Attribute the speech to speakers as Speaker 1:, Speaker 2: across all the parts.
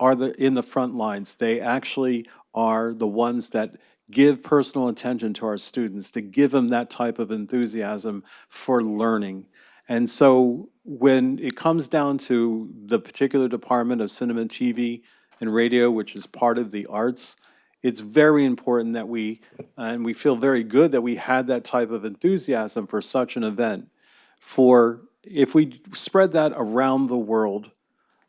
Speaker 1: are the in the front lines. They actually are the ones that give personal attention to our students, to give them that type of enthusiasm for learning. And so when it comes down to the particular department of cinema, TV, and radio, which is part of the arts, it's very important that we, and we feel very good that we had that type of enthusiasm for such an event. For if we spread that around the world,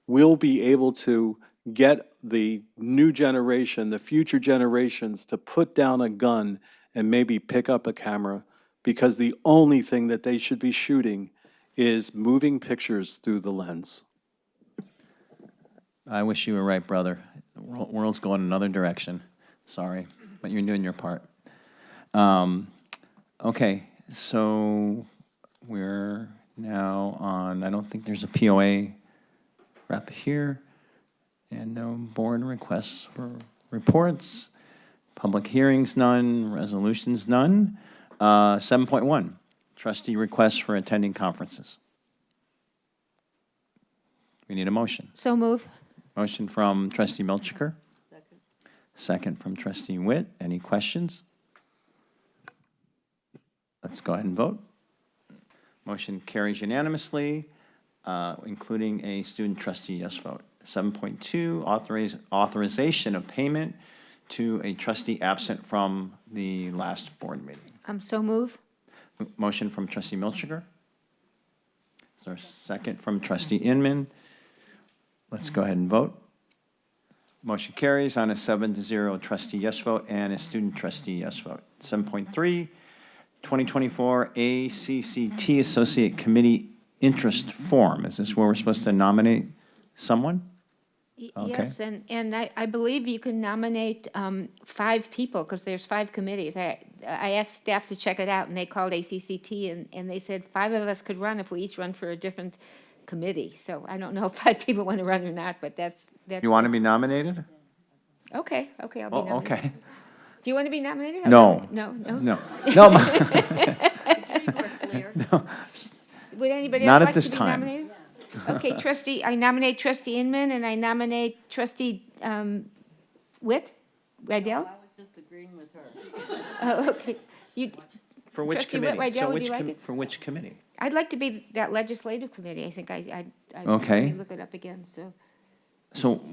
Speaker 1: we'll be able to get the new generation, the future generations to put down a gun and maybe pick up a camera because the only thing that they should be shooting is moving pictures through the lens.
Speaker 2: I wish you were right, brother. The wor- world's going another direction. Sorry, but you're doing your part. Um, okay, so we're now on. I don't think there's a POA rep here, and no board requests for reports. Public hearings none. Resolutions none. Uh, Seven point one. Trustee requests for attending conferences. We need a motion.
Speaker 3: So move.
Speaker 2: Motion from trustee Melchiker. Second from trustee Witt. Any questions? Let's go ahead and vote. Motion carries unanimously, uh, including a student trustee yes vote. 7.2, authorize- authorization of payment to a trustee absent from the last board meeting.
Speaker 3: Um, so move.
Speaker 2: M- Motion from trustee Milchiker. Is there a second from trustee Inman? Let's go ahead and vote. Motion carries on a seven to zero trustee yes vote and a student trustee yes vote. 7.3, 2024 ACCT Associate Committee Interest Form. Is this where we're supposed to nominate someone?
Speaker 3: Y-
Speaker 2: Okay.
Speaker 3: Yes, and, and I, I believe you can nominate um, five people, because there's five committees. I, I asked staff to check it out, and they called ACCT, and, and they said five of us could run if we each run for a different committee. So I don't know if five people want to run or not, but that's, that's.
Speaker 2: You want to be nominated?
Speaker 3: Okay, okay, I'll be
Speaker 2: Oh,
Speaker 3: nominated.
Speaker 2: okay.
Speaker 3: Do you want to be nominated?
Speaker 2: No.
Speaker 3: No, no?
Speaker 2: No, no, my-
Speaker 3: Would anybody
Speaker 2: Not
Speaker 3: else
Speaker 2: at
Speaker 3: like to
Speaker 2: this
Speaker 3: be
Speaker 2: time.
Speaker 3: nominated? Okay, trustee, I nominate trustee Inman, and I nominate trustee um, Witt, Rydell?
Speaker 4: I was just agreeing with her.
Speaker 3: Oh, okay. You,
Speaker 2: for which
Speaker 3: Trustee Whit-
Speaker 2: committee?
Speaker 3: Rydell,
Speaker 2: So
Speaker 3: would
Speaker 2: which
Speaker 3: you like
Speaker 2: com-
Speaker 3: it?
Speaker 2: For which committee?
Speaker 3: I'd like to be that legislative committee, I think I, I. I- let
Speaker 2: Okay.
Speaker 3: me Look it up again, so.
Speaker 2: So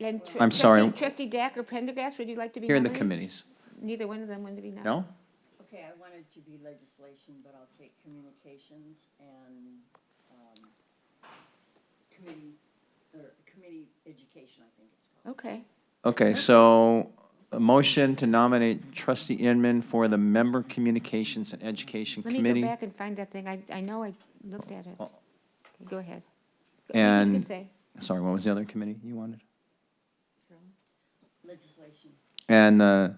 Speaker 3: And tr-
Speaker 2: I'm sorry.
Speaker 3: trustee- Trustee Dack or Pendergast, would you like to be
Speaker 2: here are the
Speaker 3: nominated?
Speaker 2: committees.
Speaker 3: Neither one of them wanted to be nominated.
Speaker 2: No?
Speaker 4: Okay, I wanted to be legislation, but I'll take communications and, um, committee, or committee education, I think it's called.
Speaker 3: Okay,
Speaker 2: Okay, so a motion to nominate trustee Inman for the Member Communications and Education
Speaker 3: let me
Speaker 2: Committee.
Speaker 3: go back and find that thing, I, I know I looked at it.
Speaker 2: Oh.
Speaker 3: Okay, Go ahead. Go- You can
Speaker 2: And-
Speaker 3: say,
Speaker 2: Sorry, what was the other committee you wanted?
Speaker 3: Oh.
Speaker 4: Legislation.
Speaker 2: And the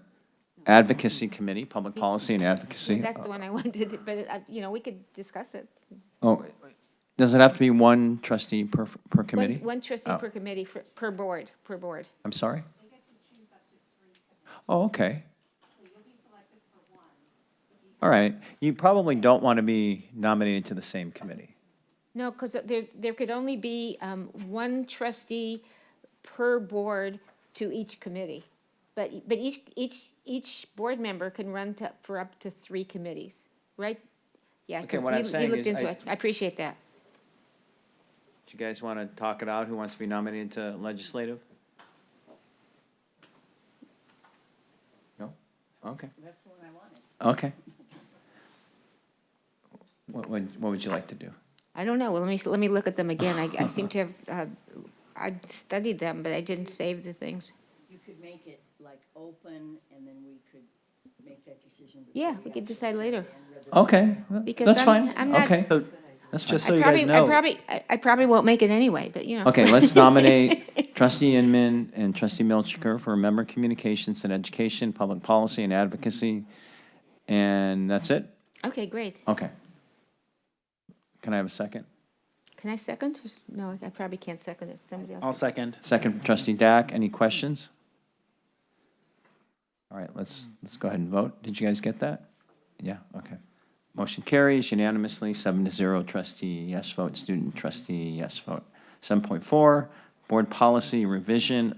Speaker 2: Advocacy Committee, Public Policy and Advocacy.
Speaker 3: that's the one I wanted, but, uh, you know, we could discuss it.
Speaker 2: Oh, does it have to be one trustee per, per
Speaker 3: One-
Speaker 2: committee?
Speaker 3: One trustee
Speaker 2: Oh.
Speaker 3: per committee, for- per board, per board.
Speaker 2: I'm sorry? Oh, okay. All right, you probably don't want to be nominated to the same committee.
Speaker 3: No, because there, there could only be um, one trustee per board to each committee. But, but each, each, each board member can run to, for up to three committees, right? Yeah.
Speaker 2: Okay,
Speaker 3: 'cause
Speaker 2: what I'm
Speaker 3: you- you
Speaker 2: saying
Speaker 3: looked
Speaker 2: is
Speaker 3: into
Speaker 2: I-
Speaker 3: it. I appreciate that.
Speaker 2: Do you guys want to talk it out? Who wants to be nominated to legislative? No? Okay.
Speaker 4: That's the one I wanted.
Speaker 2: Okay. What would, what would you like to do?
Speaker 3: I don't know, well, let me, let me look at them again. I, I seem to have, uh, I studied them, but I didn't save the things.
Speaker 4: You could make it like open, and then we could make that decision. before
Speaker 3: Yeah, we could
Speaker 4: actually
Speaker 3: decide later.
Speaker 4: end, rather
Speaker 2: Okay,
Speaker 3: Because
Speaker 2: that's
Speaker 3: I'm-
Speaker 2: fine.
Speaker 3: I'm not-
Speaker 2: Okay,
Speaker 5: So,
Speaker 2: that's fine.
Speaker 5: just so
Speaker 3: I
Speaker 5: you guys
Speaker 3: probably, I
Speaker 5: know,
Speaker 3: probably, I- I probably won't make it anyway, but you know.
Speaker 2: Okay, let's nominate trustee Inman and trustee Milchiker for member communications and education, public policy and advocacy. And that's it?
Speaker 3: Okay, great.
Speaker 2: Okay. Can I have a second?
Speaker 3: Can I second? Just- No, I probably can't second it. Somebody else.
Speaker 5: I'll second.
Speaker 2: Second, trustee Dack, any questions? All right, let's, let's go ahead and vote. Did you guys get that? Yeah, okay. Motion carries unanimously, seven to zero, trustee yes vote, student trustee yes vote. Seven point four, board policy revision